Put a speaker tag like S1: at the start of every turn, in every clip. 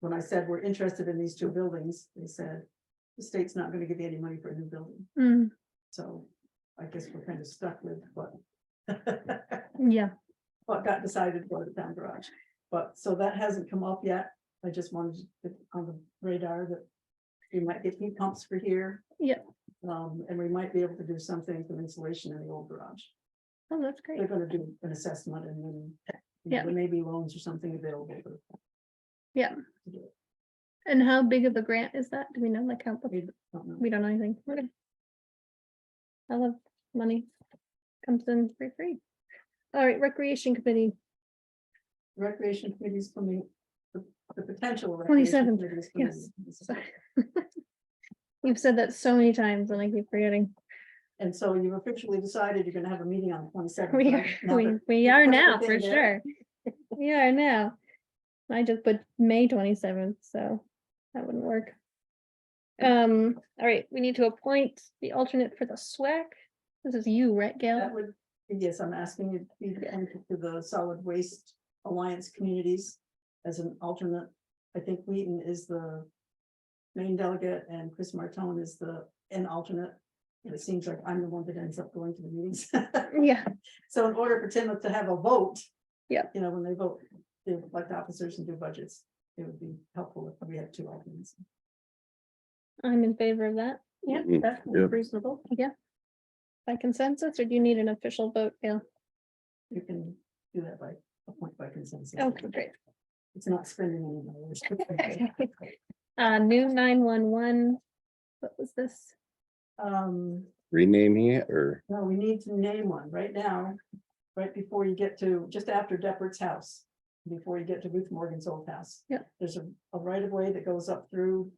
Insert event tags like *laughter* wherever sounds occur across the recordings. S1: when I said we're interested in these two buildings, they said, the state's not gonna give you any money for a new building,
S2: Mm,
S1: so I guess we're kind of stuck with what *laughs*
S2: yeah,
S1: what got decided for the town garage. But, so that hasn't come up yet, I just wanted it on the radar that we might get heat pumps for here.
S2: Yeah.
S1: Um, and we might be able to do something for insulation in the old garage.
S2: oh, that's great.
S1: They're gonna do an assessment and then. you know,
S2: Yeah.
S1: There may be loans or something available. for-
S2: Yeah.
S1: to do it.
S2: And how big of a grant is that? Do we know like how,
S1: We
S2: okay,
S1: don't know.
S2: we don't know anything. Okay. I love money. Comes in for free. All right, recreation committee,
S1: Recreation committees coming, the the potential. recreation
S2: 27th,
S1: committees
S2: yes.
S1: coming.
S2: you've said that so many times and I keep forgetting. *laughs*
S1: And so you've officially decided you're gonna have a meeting on the twenty seventh.
S2: We are, we, we are
S1: put
S2: now for
S1: everything
S2: sure.
S1: there.
S2: We are now. I just put May twenty-seventh, so that wouldn't work. Um, all right, we need to appoint the alternate for the SWAC. This is you, right, Gail?
S1: That would, yes, I'm asking you to be
S2: Yeah.
S1: appointed to the Solid Waste Alliance Communities as an alternate. I think Wheaton is the main delegate and Chris Martone is the, an alternate. And it seems like I'm the one that ends up going to the meetings. *laughs*
S2: Yeah,
S1: So in order for Tim to have a vote.
S2: Yeah.
S1: You know, when they vote, they elect officers and do budgets, it would be helpful if we had two alternates.
S2: I'm in favor of that. Yeah,
S3: Mhm,
S1: that's
S3: yeah.
S1: reasonable.
S2: Yeah. By consensus, or do you need an official vote, Gail?
S1: You can do that by, appoint by consensus.
S2: Okay, great.
S1: It's not spending any
S2: *laughs*
S1: dollars. *laughs*
S2: Uh, new nine-one-one. What was this?
S1: Um,
S3: rename it or
S1: no, we need to name one right now, right before you get to, just after Deppert's house. Before you get to Ruth Morgan's old house.
S2: Yep.
S1: There's a, a right of way that goes up through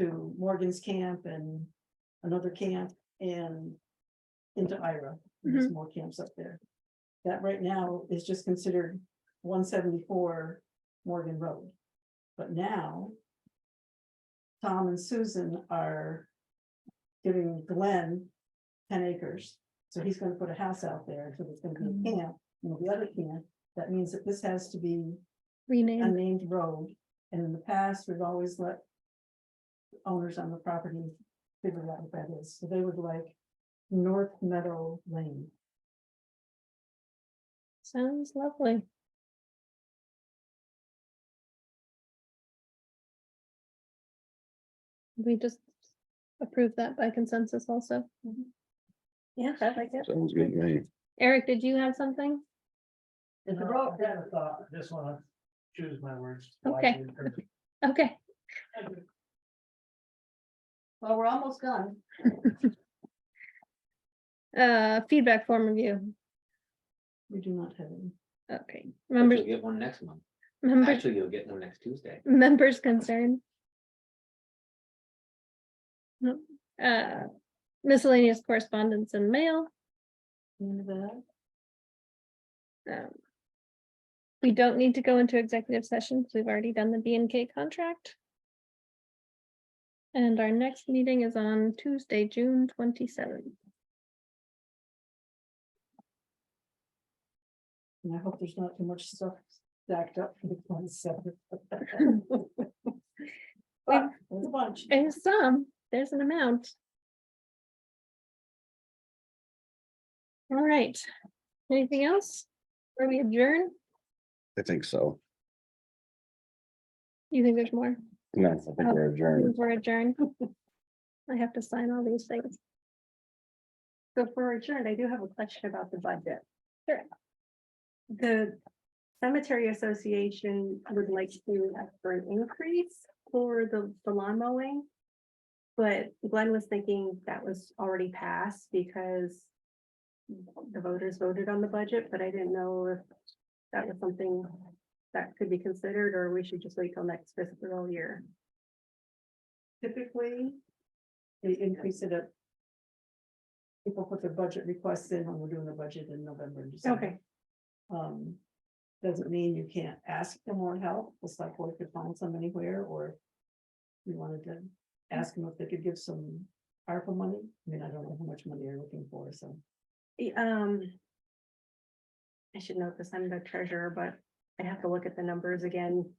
S1: to Morgan's camp and another camp and into Ira. There's more camps up there. That right now is just considered one seventy-four Morgan Road. But now Tom and Susan are giving Glenn ten acres. So he's gonna put a house out there, so there's gonna be a camp, and the other camp. That means that this has to be a
S2: Rename,
S1: named road, and in the past, we've always let owners on the property figure out what that is, so they would like North Meadow Lane.
S2: sounds lovely. We just approve that by consensus also.
S1: Mhm.
S2: Yeah, I like it.
S3: sounds good to me.
S2: Eric, did you have something?
S1: And the
S4: No,
S1: road,
S4: Oh, I kind of thought, I just wanna choose my words.
S2: Okay.
S4: wisely, 'cause
S2: Okay,
S1: well, we're almost done.
S2: uh, feedback form review.
S1: We do not have any.
S2: Okay,
S5: But
S2: members,
S5: you'll get one next month.
S2: members,
S5: Actually, you'll get one next Tuesday.
S2: members concerned. No, uh, miscellaneous correspondence and mail.
S1: End of that.
S2: Um, We don't need to go into executive sessions. We've already done the B and K contract. And our next meeting is on Tuesday, June twenty-seventh.
S1: And I hope there's not too much stuff stacked up for the one
S2: *laughs*
S1: seven. But there's a bunch.
S2: And some, there's an amount. All right. Anything else? Are we adjourn?
S3: I think so.
S2: You think there's more?
S3: No, I think we're adjourned.
S2: We're adjourned. *laughs* I have to sign all these things.
S6: So for adjourned, I do have a question about the budget.
S2: Sure.
S6: The cemetery association would like to ask for an increase for the, the lawn mowing. But Glenn was thinking that was already passed because the voters voted on the budget, but I didn't know if that was something that could be considered, or we should just wait till next fiscal year.
S1: Typically, they increase it up. People put their budget requests in when we're doing the budget in November and December. Um, doesn't mean you can't ask for more help, it's like, well, if you find some anywhere, or. You wanted to ask them if they could give some ARPA money, I mean, I don't know how much money you're looking for, so.
S6: Y- Um. I should note this, I'm the treasurer, but I have to look at the numbers again